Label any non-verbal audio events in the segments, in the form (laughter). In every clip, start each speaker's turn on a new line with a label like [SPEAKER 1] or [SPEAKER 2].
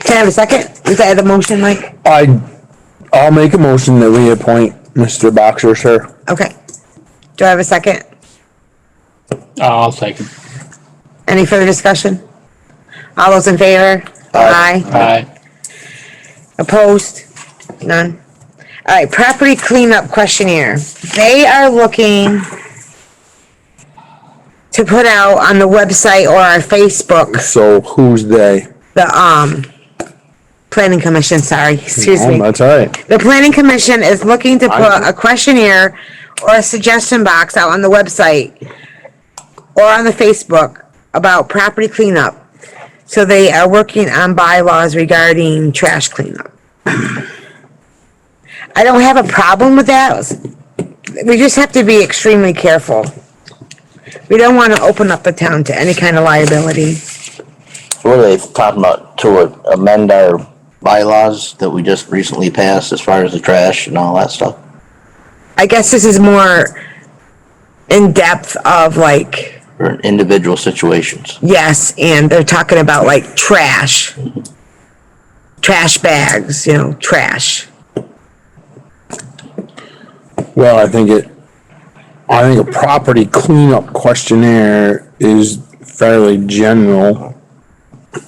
[SPEAKER 1] Can I have a second? Is that the motion, Mike?
[SPEAKER 2] I, I'll make a motion that we appoint Mr. Boxer, sir.
[SPEAKER 1] Okay. Do I have a second?
[SPEAKER 3] I'll second.
[SPEAKER 1] Any further discussion? All those in favor? Aye.
[SPEAKER 3] Aye.
[SPEAKER 1] Opposed? None. All right, property cleanup questionnaire. They are looking to put out on the website or our Facebook,
[SPEAKER 2] So who's they?
[SPEAKER 1] the, um, planning commission, sorry, excuse
[SPEAKER 2] Oh,
[SPEAKER 1] me.
[SPEAKER 2] That's all right.
[SPEAKER 1] The planning commission is looking to
[SPEAKER 2] I-
[SPEAKER 1] put a questionnaire or a suggestion box out on the website or on the Facebook about property cleanup. So they are working on bylaws regarding trash cleanup. I don't have a problem with that. We just have to be extremely careful. We don't want to open up the town to any kind of liability.
[SPEAKER 4] What are they talking about to amend our bylaws that we just recently passed as far as the trash and all that stuff?
[SPEAKER 1] I guess this is more in depth of like.
[SPEAKER 4] Or individual situations?
[SPEAKER 1] Yes, and they're talking about like trash. Trash bags, you know, trash.
[SPEAKER 2] Well, I think it, I think a property cleanup questionnaire is fairly general.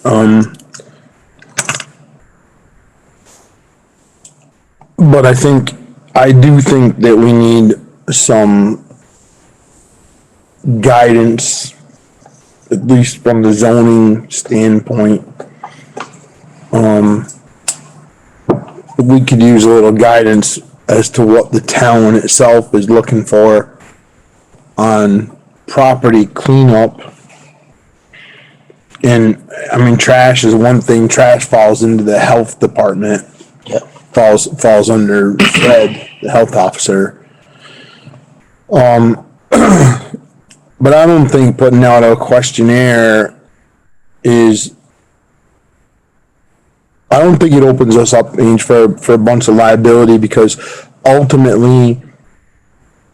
[SPEAKER 2] Um. But I think, I do think that we need some guidance, at least from the zoning standpoint. we could use a little guidance as to what the town itself is looking for on property cleanup. And, I mean, trash is one thing, trash falls into the health department,
[SPEAKER 4] Yep.
[SPEAKER 2] falls, falls under Fred, the health officer. Um, (clears throat) but I don't think putting out a questionnaire is I don't think it opens us up Ange, for for a bunch of liability because ultimately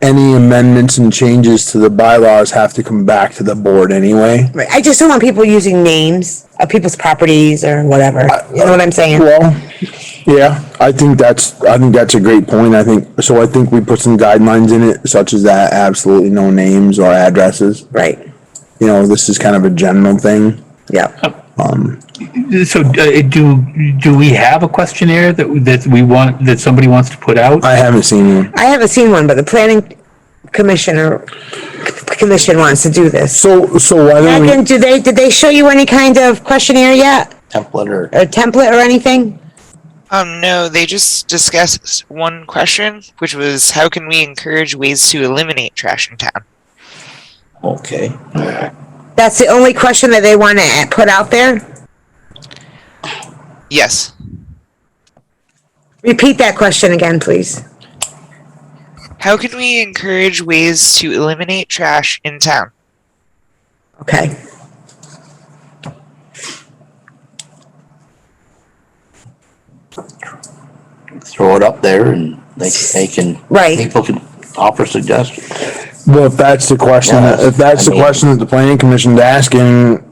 [SPEAKER 2] any amendments and changes to the bylaws have to come back to the board anyway.
[SPEAKER 1] Right. I just don't want people using names of people's properties or whatever. You know what I'm saying?
[SPEAKER 2] Well, yeah, I think that's I think that's a great point. I think so. I think we put some guidelines in it, such as that absolutely no names or addresses.
[SPEAKER 1] Right.
[SPEAKER 2] You know, this is kind of a general thing.
[SPEAKER 1] Yep.
[SPEAKER 3] So uh, do, do we have a questionnaire that, that we want, that somebody wants to put out?
[SPEAKER 2] I haven't seen one.
[SPEAKER 1] I haven't seen one, but the planning commissioner, commission wants to do this.
[SPEAKER 2] So so why don't we?
[SPEAKER 1] Megan, do they, did they show you any kind of questionnaire yet?
[SPEAKER 4] Template or?
[SPEAKER 1] Or template or anything?
[SPEAKER 5] Um, no, they just discussed one question, which was how can we encourage ways to eliminate trash in town?
[SPEAKER 4] Okay.
[SPEAKER 1] That's the only question that they want to put out there?
[SPEAKER 5] Yes.
[SPEAKER 1] Repeat that question again, please.
[SPEAKER 5] How can we encourage ways to eliminate trash in town?
[SPEAKER 1] Okay.
[SPEAKER 4] Throw it up there and they, they can.
[SPEAKER 1] Right.
[SPEAKER 4] People can offer suggestions.
[SPEAKER 2] Well, if that's the question,
[SPEAKER 4] Yeah,
[SPEAKER 2] if that's the
[SPEAKER 4] I mean-
[SPEAKER 2] question that the planning commission's asking,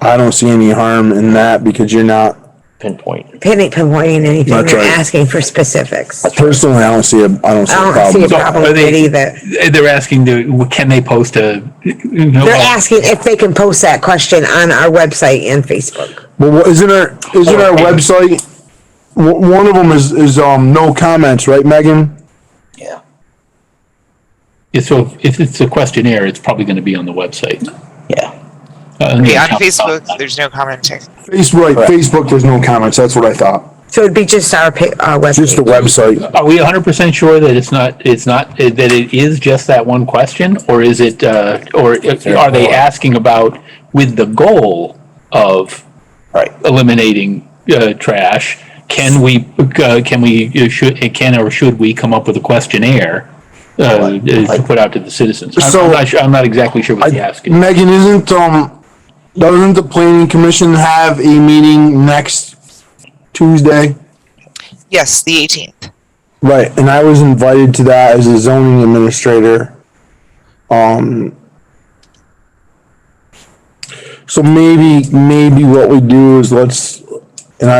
[SPEAKER 2] I don't see any harm in that because you're not,
[SPEAKER 4] Pinpoint.
[SPEAKER 1] pinning, pinpointing anything
[SPEAKER 2] That's
[SPEAKER 1] and
[SPEAKER 2] right.
[SPEAKER 1] asking for specifics. I
[SPEAKER 2] personally, I don't see a, I don't see a
[SPEAKER 1] don't see a
[SPEAKER 2] problem.
[SPEAKER 3] So,
[SPEAKER 1] problem
[SPEAKER 3] are
[SPEAKER 1] with it
[SPEAKER 3] they-
[SPEAKER 1] either.
[SPEAKER 3] They're asking, to- can they post a? uh,
[SPEAKER 1] They're
[SPEAKER 3] Oh.
[SPEAKER 1] asking if they can post that question on our website and Facebook.
[SPEAKER 2] But what, isn't our, isn't our website, w- one of them is, is, um, no comments, right, Megan?
[SPEAKER 4] Yeah.
[SPEAKER 3] So if it's a questionnaire, it's probably going to be on the website.
[SPEAKER 4] Yeah.
[SPEAKER 3] Uh,
[SPEAKER 5] Okay, on Facebook, there's no commenting.
[SPEAKER 2] Facebook,
[SPEAKER 4] Correct.
[SPEAKER 2] Facebook, there's no comments, that's what I thought.
[SPEAKER 1] So it'd be just our, pa- our
[SPEAKER 2] Just the
[SPEAKER 1] website.
[SPEAKER 2] website.
[SPEAKER 3] Are we hundred percent sure that it's not, it's not, that it is just that one question, or is it, uh, or if- are they asking about with the goal of
[SPEAKER 4] Right.
[SPEAKER 3] eliminating, uh, trash? Can we, uh, can we, uh, should, uh, can or should we come up with a questionnaire, uh, uh, to put out to the citizens? I'm-
[SPEAKER 2] So-
[SPEAKER 3] I'm not, su- I'm not exactly sure what they're asking.
[SPEAKER 2] Megan, isn't, um, doesn't the planning commission have a meeting next Tuesday?
[SPEAKER 5] Yes, the 18th.
[SPEAKER 2] Right, and I was invited to that as a zoning administrator. Um. So maybe, maybe what we do is let's,